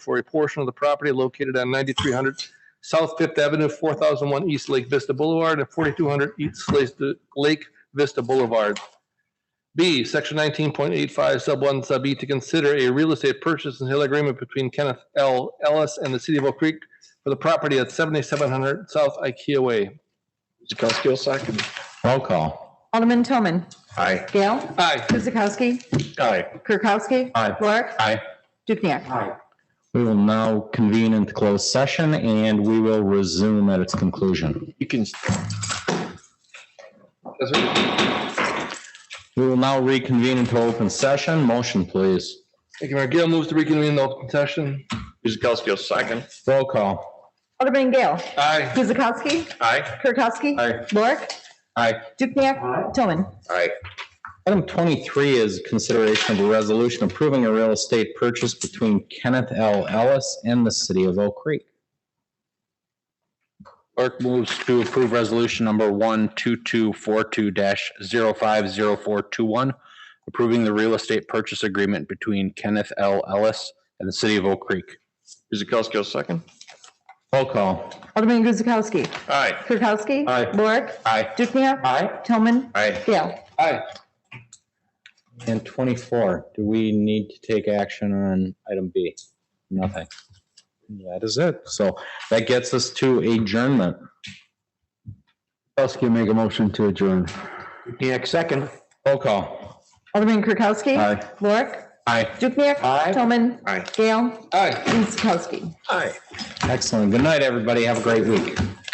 for a portion of the property located on 9300 South Fifth Avenue, 4001 East Lake Vista Boulevard, and 4200 East Lake- Lake Vista Boulevard. B, section nineteen point eight five sub one sub E to consider a real estate purchase and sale agreement between Kenneth L. Ellis and the city of Oak Creek for the property at seventy-seven hundred South IKEA Way. Kuzikowski will second. Roll call. Alderman Toman. Aye. Gail. Aye. Guzekowski. Aye. Kirkowski. Aye. Lorik. Aye. Dukenyak. We will now convene into closed session and we will resume at its conclusion. You can, That's right. We will now reconvene into open session. Motion, please. Thank you, Mayor. Gail moves to reconvene the open session. Kuzikowski will second. Roll call. Alderman Gail. Aye. Guzekowski. Aye. Kirkowski. Aye. Lorik. Aye. Dukenyak. Toman. Aye. Item 23 is consideration of a resolution approving a real estate purchase between Kenneth L. Ellis and the city of Oak Creek. Clerk moves to approve resolution number one two two four two 50421 approving the real estate purchase agreement between Kenneth L. Ellis and the city of Oak Creek. Kuzikowski will second. Roll call. Alderman Guzekowski. Aye. Kirkowski. Aye. Lorik. Aye. Dukenyak. Aye. Toman. Aye. Gail. Aye. And 24, do we need to take action on item B? Nothing. That is it. So that gets us to adjournment. Kuzikowski make a motion to adjourn. Roll call. Alderman Kirkowski. Aye. Lorik. Aye. Dukenyak. Toman. Aye. Gail. Aye. Guzekowski. Aye. Excellent. Good night, everybody. Have a great week.